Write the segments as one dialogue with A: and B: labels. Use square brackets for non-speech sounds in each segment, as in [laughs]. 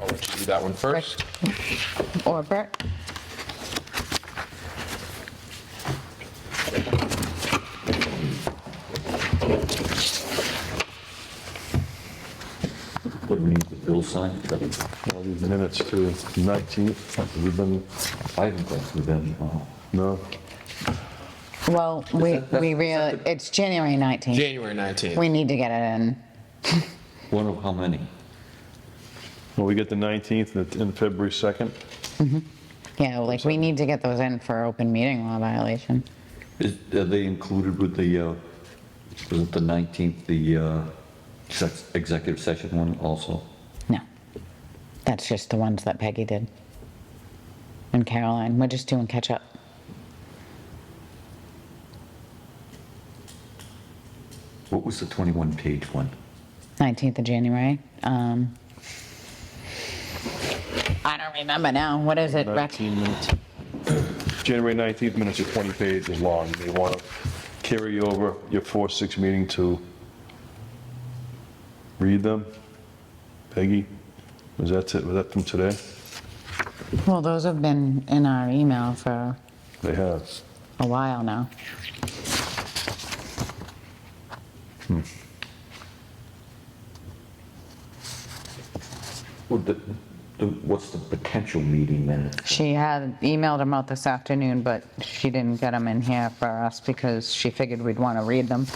A: Oh, do that one first.
B: Or Bert?
C: What do we need to bill sign?
D: All these minutes to 19th, we've been,
C: I haven't gone through them. uh,
D: no,
B: Well, we, we really, it's January 19th.
A: January 19th.
B: We need to get it in.
C: One of how many?
D: well, we get the 19th and the- and February 2nd.
B: Yeah, like, we need to get those in for open meeting law violation.
C: Is- Are they included with the, uh, wasn't the 19th, the uh, sex- executive session one also?
B: No. That's just the ones that Peggy did. And Caroline, we're just doing catch up.
C: What was the 21-page one?
B: 19th of January. Um, I don't remember now. What is it, Rex?
D: 19 minutes. January 19th minutes are 20 pages long. You want to carry over your 4-6 meeting to read them? Peggy, was that, it? was that from today?
B: Well, those have been in our email for
D: They have.
B: a while now.
C: Well, the- the- What's the potential meeting minutes?
B: She had emailed them out this afternoon, but she didn't get them in here for us because she figured we'd want to read them.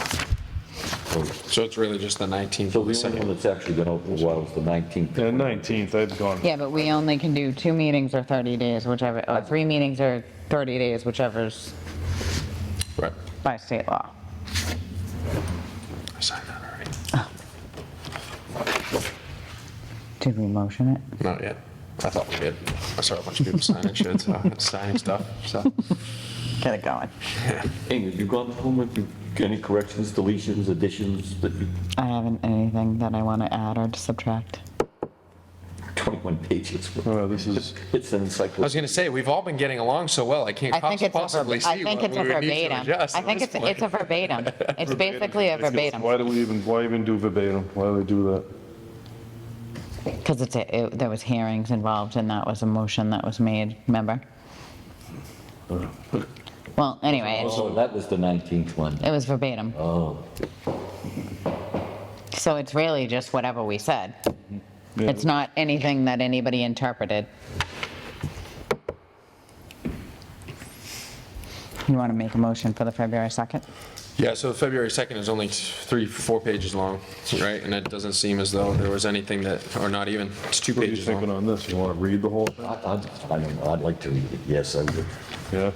A: So it's really just the 19th.
C: So
A: and the
C: the only one
A: second.
C: that's actually been out for a while is the 19th.
D: The 19th, I've gone,
B: Yeah, but we only can do two meetings or 30 days, whichever, or three meetings or 30 days, whichever's
A: Right.
B: by state law.
A: I signed that already.
B: Did we motion it?
A: Not yet. I thought we did. I saw a bunch of people signing shit, so- [laughs] signing stuff, so.
B: Get it going.
C: Hey, have you gone home with you- any corrections, deletions, additions, that you-
B: I haven't anything that I want to add or subtract.
C: 21 pages?
D: oh, this is,
C: It's an
A: I was
C: encyclopedia.
A: going to say, we've all been getting along so well, I can't
B: I think it's a verb-
A: possibly
B: I
A: see
B: think
A: what
B: it's
A: we
B: a
A: would need to
B: verbatim.
A: adjust.
B: I
A: at
B: think
A: this
B: it's, it's a
A: point.
B: verbatim.
A: [laughs]
B: It's basically a verbatim.
D: why do we even, why even do verbatim? Why do we do that?
B: Because it's, a- it- there was hearings involved and that was a motion that was made, remember? Well, anyway, it's-
C: Oh, that was the 19th one.
B: it was verbatim.
C: Oh,
B: So it's really just whatever we said.
D: Yeah.
B: It's not anything that anybody interpreted. You want to make a motion for the February 2nd?
A: Yeah, so February 2nd is only three, four pages long, right? And it doesn't seem as though there was anything that, or not even, it's two
D: What are you
A: pages
D: thinking
A: long.
D: on this? You want to read the whole thing?
C: I, I- I don't know, I'd like to read it, yes, I would.
D: Yeah.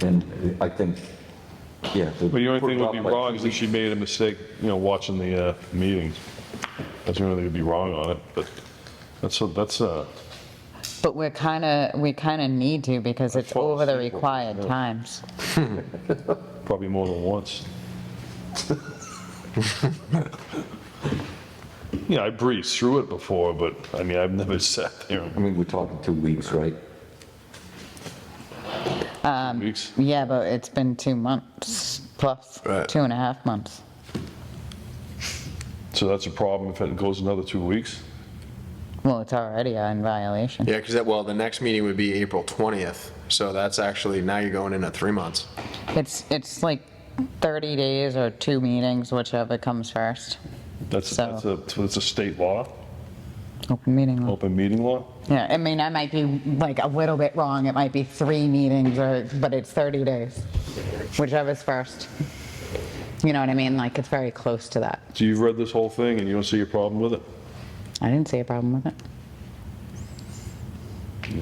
C: And I think, yeah.
D: But the only thing that would be wrong is if she made a mistake, you know, watching the uh, meetings. That's the only thing that'd be wrong on it, but that's, a- that's, uh,
B: But we're kind of, we kind of need to because it's
D: fall
B: over the
D: asleep watching
B: required times.
D: probably more than once. [laughs] Yeah, I breezed through it before, but, I mean, I've never [laughs] sat there
C: I mean, we're talking two weeks, right?
D: in weeks.
B: Yeah, but it's been two months plus,
A: Right.
B: two and a half months.
D: So that's a problem if it goes another two weeks.
B: Well, it's already in violation.
A: Yeah, because that, well, the next meeting would be April 20th, so that's actually, now you're going in at three months.
B: It's, it's like 30 days or two meetings, whichever comes first.
D: That's,
B: So-
D: that's a, so it's a state law,
B: Open meeting law.
D: open meeting law.
B: Yeah, I mean, I might be like a little bit wrong. It might be three meetings or, but it's 30 days, whichever's first. You know what I mean? Like, it's very close to that.
D: So you've read this whole thing and you don't see a problem with it?
B: I didn't see a problem with it.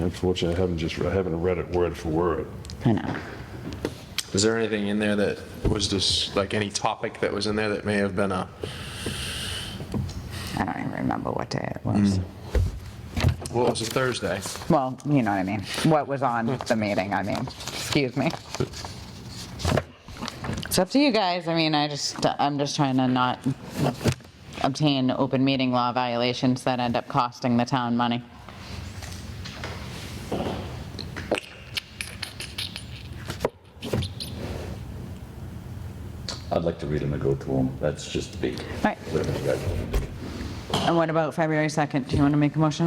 D: Unfortunately, I haven't just, I haven't read it word for word.
B: I know.
A: Is there anything in there that was just, like, any topic that was in there that may have been a,
B: I don't even remember what day it was.
A: well, it was a Thursday.
B: Well, you know what I mean. What was on the meeting, I mean. Excuse me. It's up to you guys. I mean, I just, I'm just trying to not obtain open meeting law violations that end up costing the town money.
C: I'd like to read them and go through them, that's just me.
B: Right.
C: Whatever you guys want to do.
B: And what about February 2nd? Do you want to make a motion